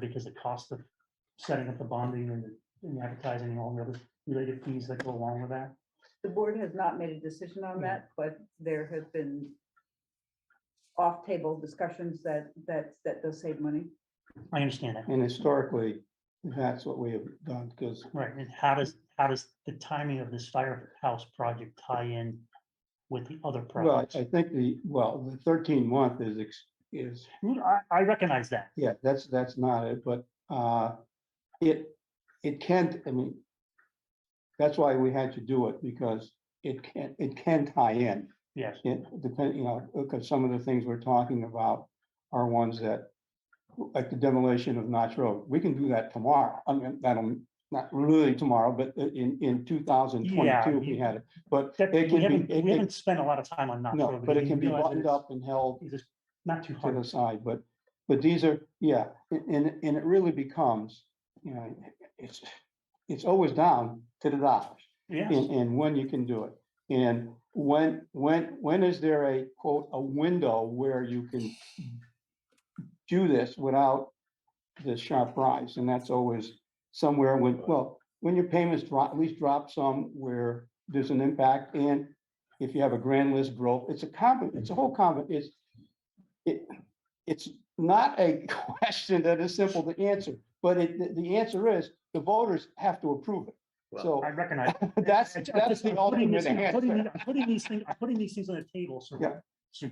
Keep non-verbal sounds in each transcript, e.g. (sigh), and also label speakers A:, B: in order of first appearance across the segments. A: because the cost of setting up the bonding and and advertising and all the other related fees that go along with that.
B: The board has not made a decision on
A: No.
B: that, but there have been off-table discussions that, that, that does save money.
A: I understand that.
C: And historically, that's what we have done, because
A: Right, and how does, how does the timing of this firehouse project tie in with the other
C: Well,
A: projects?
C: I think the, well, the thirteen month is, ex- is,
A: Mm, I, I recognize that.
C: yeah, that's, that's not it, but, uh, it, it can't, I mean, that's why we had to do it, because it can, it can tie in.
A: Yes,
C: It depend, you know, because some of the things we're talking about are ones that, like the demolition of Notch Road, we can do that tomorrow. I mean, that'll, not really tomorrow, but in, in two thousand
A: Yeah,
C: twenty-two, we
A: you-
C: had it, but
A: that,
C: it
A: we
C: can
A: haven't,
C: be, it-
A: we
C: it,
A: haven't spent a lot of time on not.
C: no, but it can be buttoned up and held
A: It's just not too
C: to
A: hard.
C: the side, but, but these are, yeah, a- and, and it really becomes, you know, it's, it's always down to the dollars
A: Yes,
C: and, and when you can do it. And when, when, when is there a quote, a window where you can do this without the sharp rise? And that's always somewhere when, well, when your payments drop, at least drop some where there's an impact. And if you have a grand list growth, it's a common, it's a whole common, it's, it, it's not a (laughs) question that is simple to answer, but it, the, the answer is the voters have to approve it.
D: Well,
C: So.
A: I recognize.
C: That's,
A: I'm just-
C: that's the
A: I'm putting
C: ultimate
A: this- I'm putting
C: answer.
A: the- I'm Putting these things, I'm putting these things on the table, so.
C: Yeah.
A: So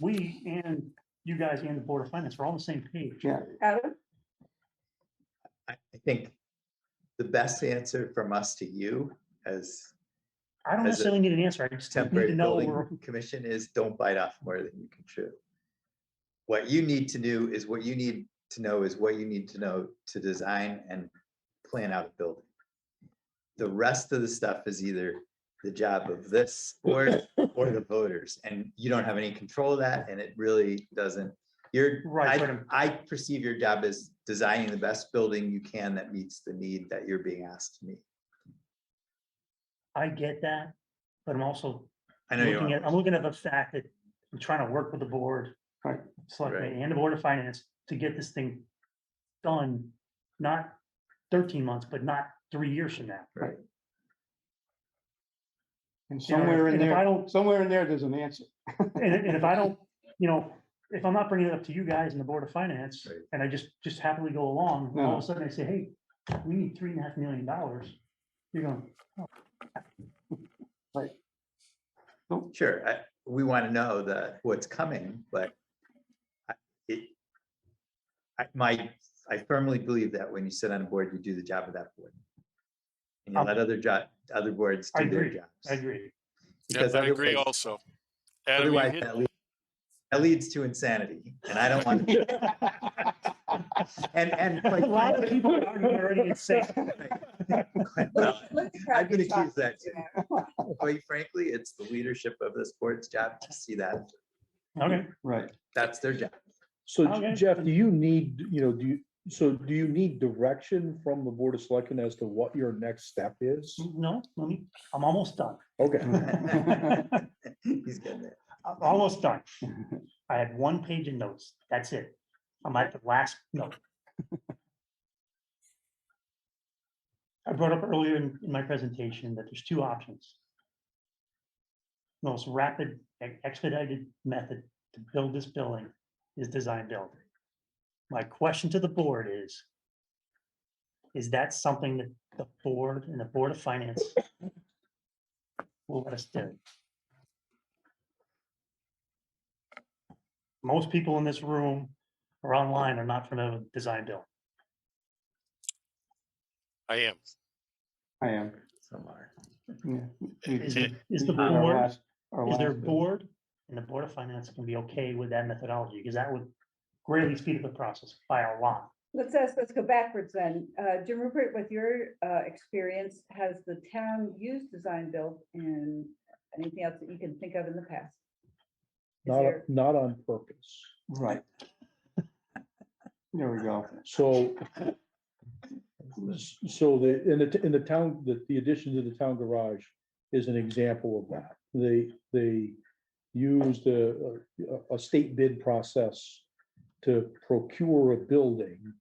A: we and you guys and the Board of Finance, we're all on the same page.
C: Yeah,
B: Adam,
D: I, I think the best answer from us to you as
A: I don't
D: As a
A: necessarily need an answer, I (laughs) just need to
D: temporary
A: know we're,
D: building commission is don't bite off more than you can chew. What you need to do is what you need to know is what you need to know to design and plan out a building. The rest of the stuff is either the job of this
A: (laughs)
D: or, or the voters, and you don't have any control of that, and it really doesn't. You're,
A: Right, but
D: I,
A: I'm-
D: I perceive your job as designing the best building you can that meets the need that you're being asked to meet.
A: I get that, but I'm also
D: I know you
A: looking at, I'm
D: are.
A: looking at the fact that I'm trying to work with the board,
C: Right.
A: selectmen and the Board of Finance to get this thing done, not thirteen months, but not three years from now.
C: and
A: You know, and if-
C: somewhere in
A: and if I
C: there,
A: don't,
C: somewhere in there, there's an answer. (laughs)
A: and, if- and if I don't, you know, if I'm not bringing it up to you guys and the Board of Finance,
D: Right.
A: and I just, just happily go along, all
C: No.
A: of a sudden I say, hey, we need three and a half million dollars. You're going,
D: Sure, I, we want to know the, what's coming, but I, it, I, my, I firmly believe that when you sit on a board, you do the job of that board. And you
A: Um,
D: let other job, other boards
A: I
D: do their
A: agree, I
D: jobs.
A: agree.
E: Yes,
D: because
E: I agree
D: otherwise-
E: also. Adam, you
D: Otherwise,
E: hit,
D: that leads, that leads to insanity, and I don't want,
A: (laughs)
D: and, and.
A: A
D: quite
A: lot of
D: frankly-
A: people are already insane.
D: Well,
B: let the crowd
D: I'm gonna
B: get
D: choose
B: shocked.
D: that, quite frankly, it's the leadership of this board's job to see that,
A: Okay,
C: (laughs) Right,
D: that's their job. (laughs)
F: So J-
A: Okay.
F: Jeff, do you need, you know, do you, so do you need direction from the Board of Selectmen as to what your next step is?
A: no, let me, I'm almost done.
F: Okay,
D: He's getting there.
A: I'm almost done. I had one page of notes. That's it. I'm at the last note. I brought up earlier in, in my presentation that there's two options. Most rapid and expedited method to build this building is design build. My question to the board is, is that something that the board and the Board of Finance will let us do? most people in this room or online are not familiar with design build.
E: I am.
C: I am.
D: Some are.
C: yeah. We-
A: Is,
E: It-
A: is
C: we
A: the
C: did our
A: board,
C: last- our
A: is their
C: last bit.
A: board and the Board of Finance can be okay with that methodology? Because that would greatly speed up the process by a lot.
B: Let's ask, let's go backwards then. Uh, Jim Rupert, with your, uh, experience, has the town used design build and anything else that you can think of in the past? Is
F: not,
B: there,
F: not on purpose.
C: Right. There we go.
F: So, s- so the, in the, t- in the town, the, the addition to the town garage is an example of that. They, they used a, a- a state bid process to procure a building